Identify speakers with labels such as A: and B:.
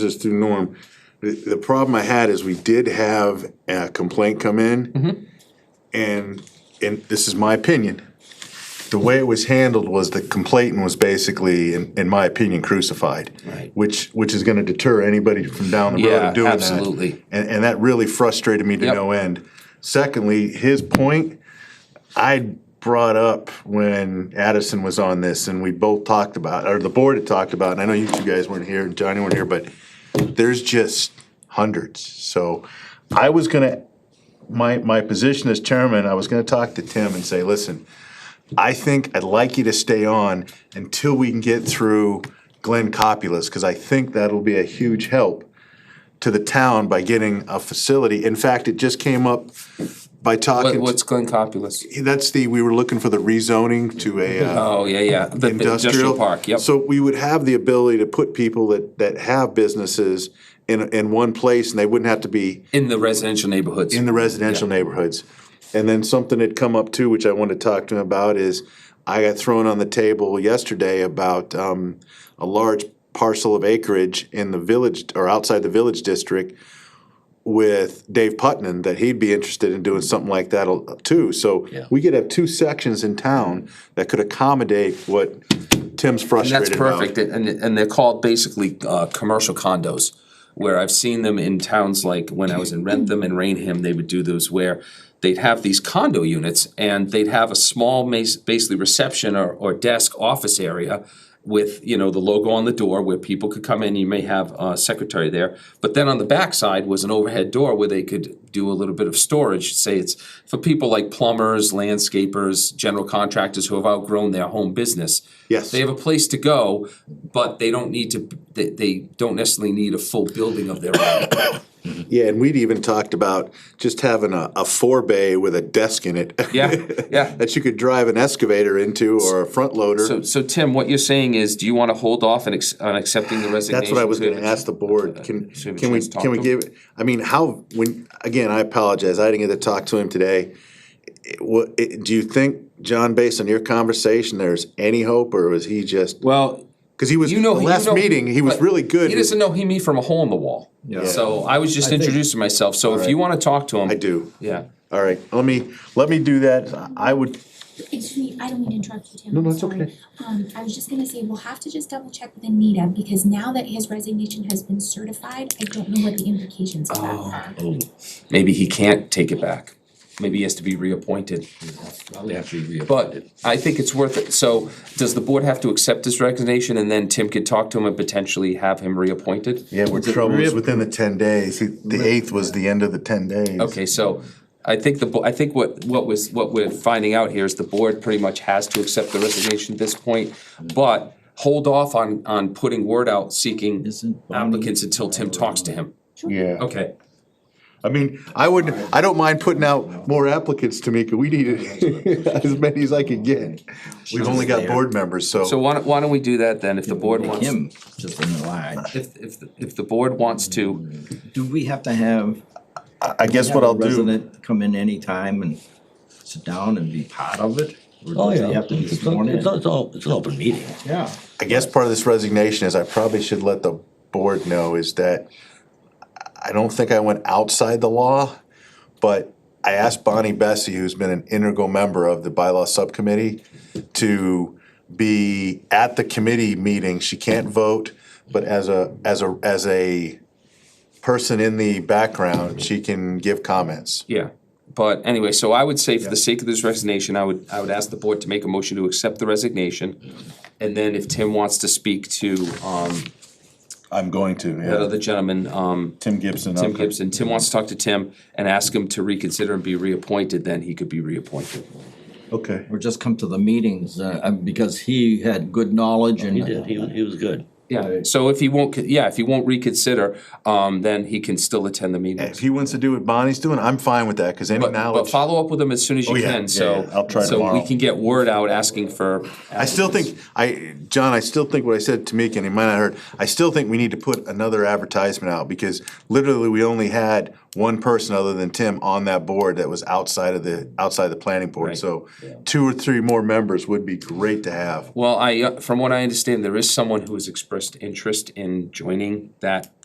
A: this through Norm. The, the problem I had is we did have a complaint come in. And, and this is my opinion. The way it was handled was the complainant was basically, in, in my opinion, crucified.
B: Right.
A: Which, which is gonna deter anybody from down the road
B: Yeah,
A: of doing that.
B: absolutely.
A: And, and that really frustrated me to
B: Yep.
A: no end. Secondly, his point, I brought up when Addison was on this, and we both talked about, or the board had talked about, and I know you two guys weren't here, and Johnny weren't here, but there's just hundreds, so I was gonna, my, my position as chairman, I was gonna talk to Tim and say, listen, I think I'd like you to stay on until we can get through Glenn Copulus, because I think that'll be a huge help to the town by getting a facility. In fact, it just came up by talking
B: What,
A: to
B: what's Glen Copulus?
A: that's the, we were looking for the rezoning to a uh,
B: Oh, yeah, yeah, the the industrial
A: industrial.
B: park, yep.
A: So we would have the ability to put people that, that have businesses in, in one place and they wouldn't have to be
B: In the residential neighborhoods.
A: in the residential neighborhoods. And then something had come up too, which I wanted to talk to him about is I got thrown on the table yesterday about um, a large parcel of acreage in the village or outside the village district with Dave Putnam that he'd be interested in doing something like that al- too. So we could have two sections in town that could accommodate what Tim's
B: And that's
A: frustrated about.
B: perfect, and, and they're called basically, uh, commercial condos. Where I've seen them in towns like when I was in Rentham and Rainham, they would do those where they'd have these condo units and they'd have a small mas- basically reception or, or desk office area with, you know, the logo on the door where people could come in, you may have a secretary there. But then on the backside was an overhead door where they could do a little bit of storage, say it's for people like plumbers, landscapers, general contractors who have outgrown their home business.
A: Yes.
B: They have a place to go, but they don't need to, they, they don't necessarily need a full building of their own.
A: Yeah, and we'd even talked about just having a, a four bay with a desk in it.
B: Yeah, yeah.
A: That you could drive an excavator into or a front
B: So,
A: loader.
B: so Tim, what you're saying is, do you wanna hold off on ex- on accepting the resignation?
A: That's what I was gonna ask the board. Can,
B: Should we
A: can we,
B: just talk
A: can we
B: to him?
A: give, I mean, how, when, again, I apologize, I didn't get to talk to him today. It- What, it- do you think, John, based on your conversation, there's any hope or was he just,
B: Well,
A: cause he was,
B: you know. you
A: last
B: know-
A: meeting, he was
B: but
A: really good.
B: He doesn't know he me from a hole in the wall.
C: Yeah.
B: So I was just introducing myself, so if you wanna talk to him.
A: I do.
B: Yeah,
A: All right, let me, let me do that. I would,
D: Excuse me, I don't mean to interrupt you, Tim. No,
A: no, it's okay.
D: Um, I was just gonna say, we'll have to just double check with Anita, because now that his resignation has been certified, I don't know what the implications of that are.
B: maybe he can't take it back, maybe he has to be reappointed.
C: Probably have to be
B: But
C: reappointed.
B: I think it's worth it, so does the board have to accept this resignation and then Tim could talk to him and potentially have him reappointed?
A: Yeah, we're troubles within the ten days. He- The eighth was the end of the ten days.
B: Okay, so I think the, bo- I think what, what was, what we're finding out here is the board pretty much has to accept the resignation at this point, but hold off on, on putting word out seeking
C: Isn't Bonnie-
B: applicants until Tim talks to him.
A: Yeah.
B: Okay,
A: I mean, I would, I don't mind putting out more applicants, Tamika. We need as many as I can get. We've only got board members,
B: so
A: so.
B: why don't, why don't we do that then, if the board wants,
C: Him, just in the line.
B: if, if, the- if the board wants to,
C: Do we have to have?
A: I I guess
C: have
A: what
C: a
A: I'll do,
C: Resident come in anytime and sit down and be part of it? Or
E: Oh,
C: does
E: yeah.
C: he have to be
E: It's
C: sworn
E: not-
C: in?
E: It's not, it's all, it's an open meeting.
C: Yeah.
A: I guess part of this resignation is I probably should let the board know is that I don't think I went outside the law, but I asked Bonnie Bessie, who's been an integral member of the bylaw subcommittee, to be at the committee meeting. She can't vote, but as a, as a, as a person in the background, she can give comments.
B: yeah. But anyway, so I would say for the sake of this resignation, I would, I would ask the board to make a motion to accept the resignation. And then if Tim wants to speak to, um,
A: I'm going to,
B: that
A: yeah.
B: other gentleman, um,
A: Tim Gibson.
B: Tim Gibson, Tim wants to talk to Tim and ask him to reconsider and be reappointed, then he could be reappointed.
A: Okay.
C: Or just come to the meetings, uh, uh, because he had good knowledge and.
E: He did, he, was- he was good.
B: Yeah, so if he won't, con- yeah, if he won't reconsider, um, then he can still attend the
A: If
B: meetings.
A: he wants to do what Bonnie's doing, I'm fine with that, because any
B: But, but
A: knowledge,
B: follow up with him as soon as you
A: Oh, yeah,
B: can,
A: yeah,
B: so.
A: yeah, I'll try
B: So
A: tomorrow.
B: we can get word out asking for.
A: I still think, I, John, I still think what I said to Meek, and he might not heard, I still think we need to put another advertisement out, because literally, we only had one person other than Tim on that board that was outside of the, outside the planning board,
B: Right.
A: so two or three more members would be great to have.
B: Well, I, uh, from what I understand, there is someone who has expressed interest in joining that